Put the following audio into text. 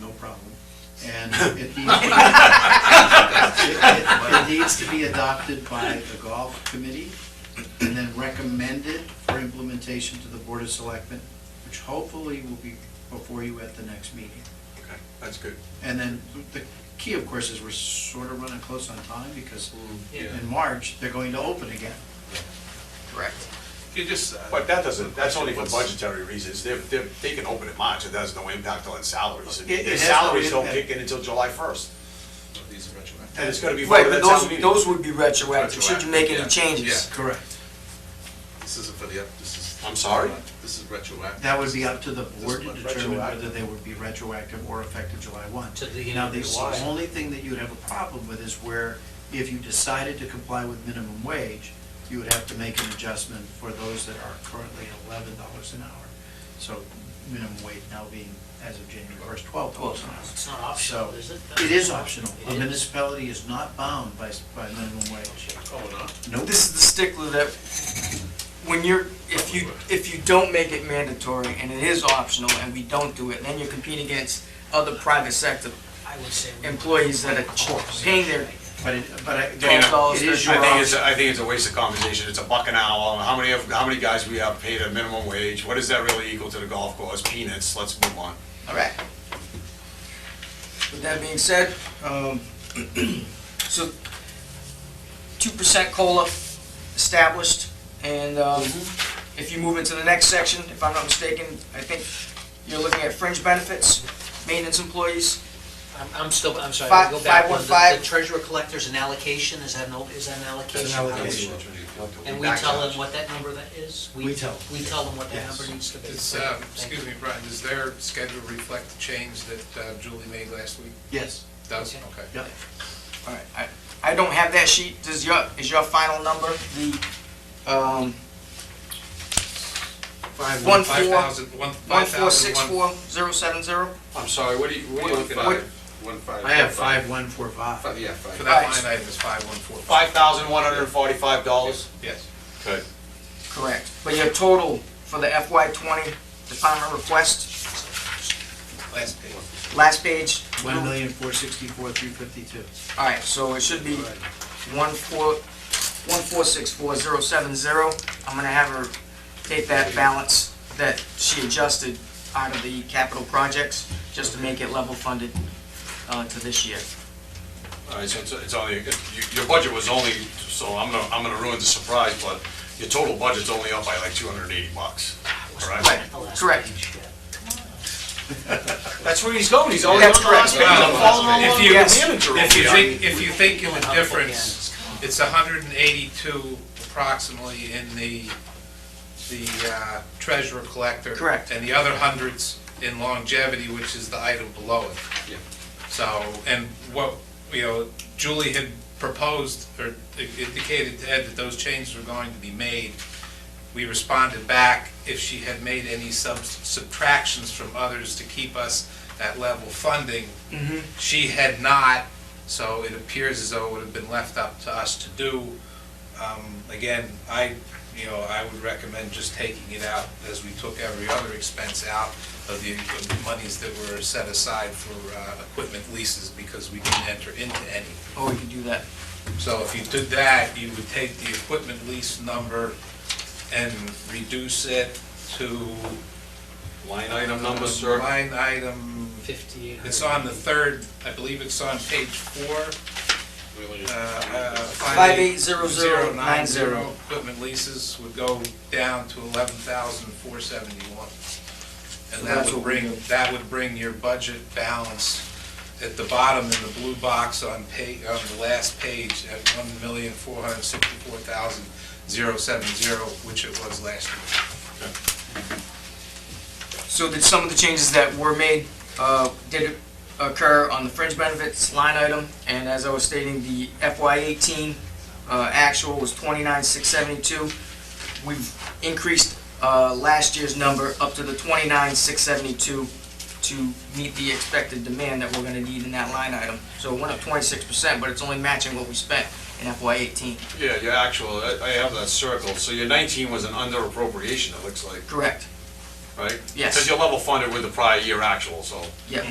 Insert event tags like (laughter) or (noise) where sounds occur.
no problem. And it needs, it- it- it needs to be adopted by the golf committee and then recommended for implementation to the Board of Selectmen, which hopefully will be before you at the next meeting. Okay, that's good. And then the key, of course, is we're sort of running close on time because Yeah. in March, they're going to open again. Correct. You just. uh, But that doesn't, that's only for what's- budgetary reasons. They're, they're, they can open in March, it has no impact on salaries. It- it Their has no salaries don't impact. kick in until July first, These are retroactive. and it's gonna be Right, voted but at town those, meeting. those would be retroactive, should you make Retroactive, yeah. any changes. Correct. This isn't for the, up- this is. I'm sorry? This is retroactive. That would be up to the board to This one, determine retroactive. whether they would be retroactive or effective July 1. To the beginning Now, of the July. only thing that you'd have a problem with is where if you decided to comply with minimum wage, you would have to make an adjustment for those that are currently eleven dollars an hour. So minimum wage now being, as of January first, twelve dollars an hour. It's not optional, So, is it? It is optional. A It is? municipality is not bound by, by minimum wage. Oh, no? Nope. This is the stickler that, when you're, if you, if you don't make it mandatory and it is optional and we don't do it, then you're competing against other private sector I would say. we- employees that are paying their But it, but I, Dana, it is your I think it's, option. a- I think it's a waste of conversation, it's a buck an hour, how many of, how many guys we have paid a minimum wage, what does that really equal to the golf course, peanuts, let's move on. All right. With that being said, um, (clears throat) so two percent COLA established, and um, Mm-hmm. if you move into the next section, if I'm not mistaken, I think you're looking at fringe benefits, maintenance employees. I'm, I'm still, I'm sorry, Five- I'll go back five one. one The- five. The treasurer collector's an allocation, is that an, al- is that an allocation? How allocation. much? And we tell them what that number that is? We tell. We tell them what that Yes. number needs to be. Does, Thank um, you. excuse me, Brian, does their schedule reflect the change that uh, Julie made last week? Yes, Does, Okay. okay. yeah. All right, I, I don't have that sheet. Does your, is your final number the, um, Five, One Five four- thousand, one, one five four thousand, six one. four zero seven zero? I'm sorry, what are you, what are you looking What- at? One five. I have five, one, four, five. Five, yeah, For five. that line item is five one four five. Five thousand one hundred and forty-five dollars? Yes. Good. Correct. But your total for the FY twenty department request? Last page. Last page. One million, four sixty-four, three fifty-two. All right, so it should be one four, one four six four zero seven zero. I'm gonna have her take that balance that she adjusted out of the capital projects, just to make it level funded, uh, to this year. All right, so it's, it's only, you- your budget was only, so I'm gonna, I'm gonna ruin the surprise, but your total budget's only up by like two hundred and eighty bucks. All right? Right, The last correct. page, yeah. That's where he's going, he's only on That's the last page, correct. I'm following along Uh, If with you- your yes. manager If you over here. think, if you think you Up indifference, again. it's hundred and eighty-two approximately in the, the uh, treasurer collector. Correct. And the other hundreds in longevity, which is the item below it. Yeah. So, and what, you know, Julie had proposed or indicated to Ed that those changes were going to be made. We responded back if she had made any sub- subtractions from others to keep us at level funding. She had not, so it appears as though it would have been left up to us to do. Um, Again, I, you know, I would recommend just taking it out as we took every other expense out of the of the monies that were set aside for uh, equipment leases because we didn't enter into any. Or Oh, we could do that. So if you did that, you would take the equipment lease number and reduce it to. Line item number, sir? Uh, Line item, Fifty-eight hundred. it's on the third, I believe it's on page four. Uh, uh, Five 580090. Equipment leases would go down to eleven thousand four seventy-one. So that's And that what we would bring, need. that would bring your budget balance at the bottom in the blue box on pa, on the last page at one million four hundred sixty-four thousand zero seven zero, which it was last year. So did some of the changes that were made, uh, did occur on the fringe benefits line item, and as I was stating, the FY eighteen, uh, actual was twenty-nine, six seventy-two. We've increased, uh, last year's number up to the twenty-nine, six seventy-two to meet the expected demand that we're gonna need in that line item. So it went up twenty-six percent, but it's only matching what we spent in FY eighteen. Yeah, your actual, I, I have that circled, so your nineteen was an under appropriation, it looks like, Correct, right? Yes. Because you're level funded with the prior year actual, so. yeah.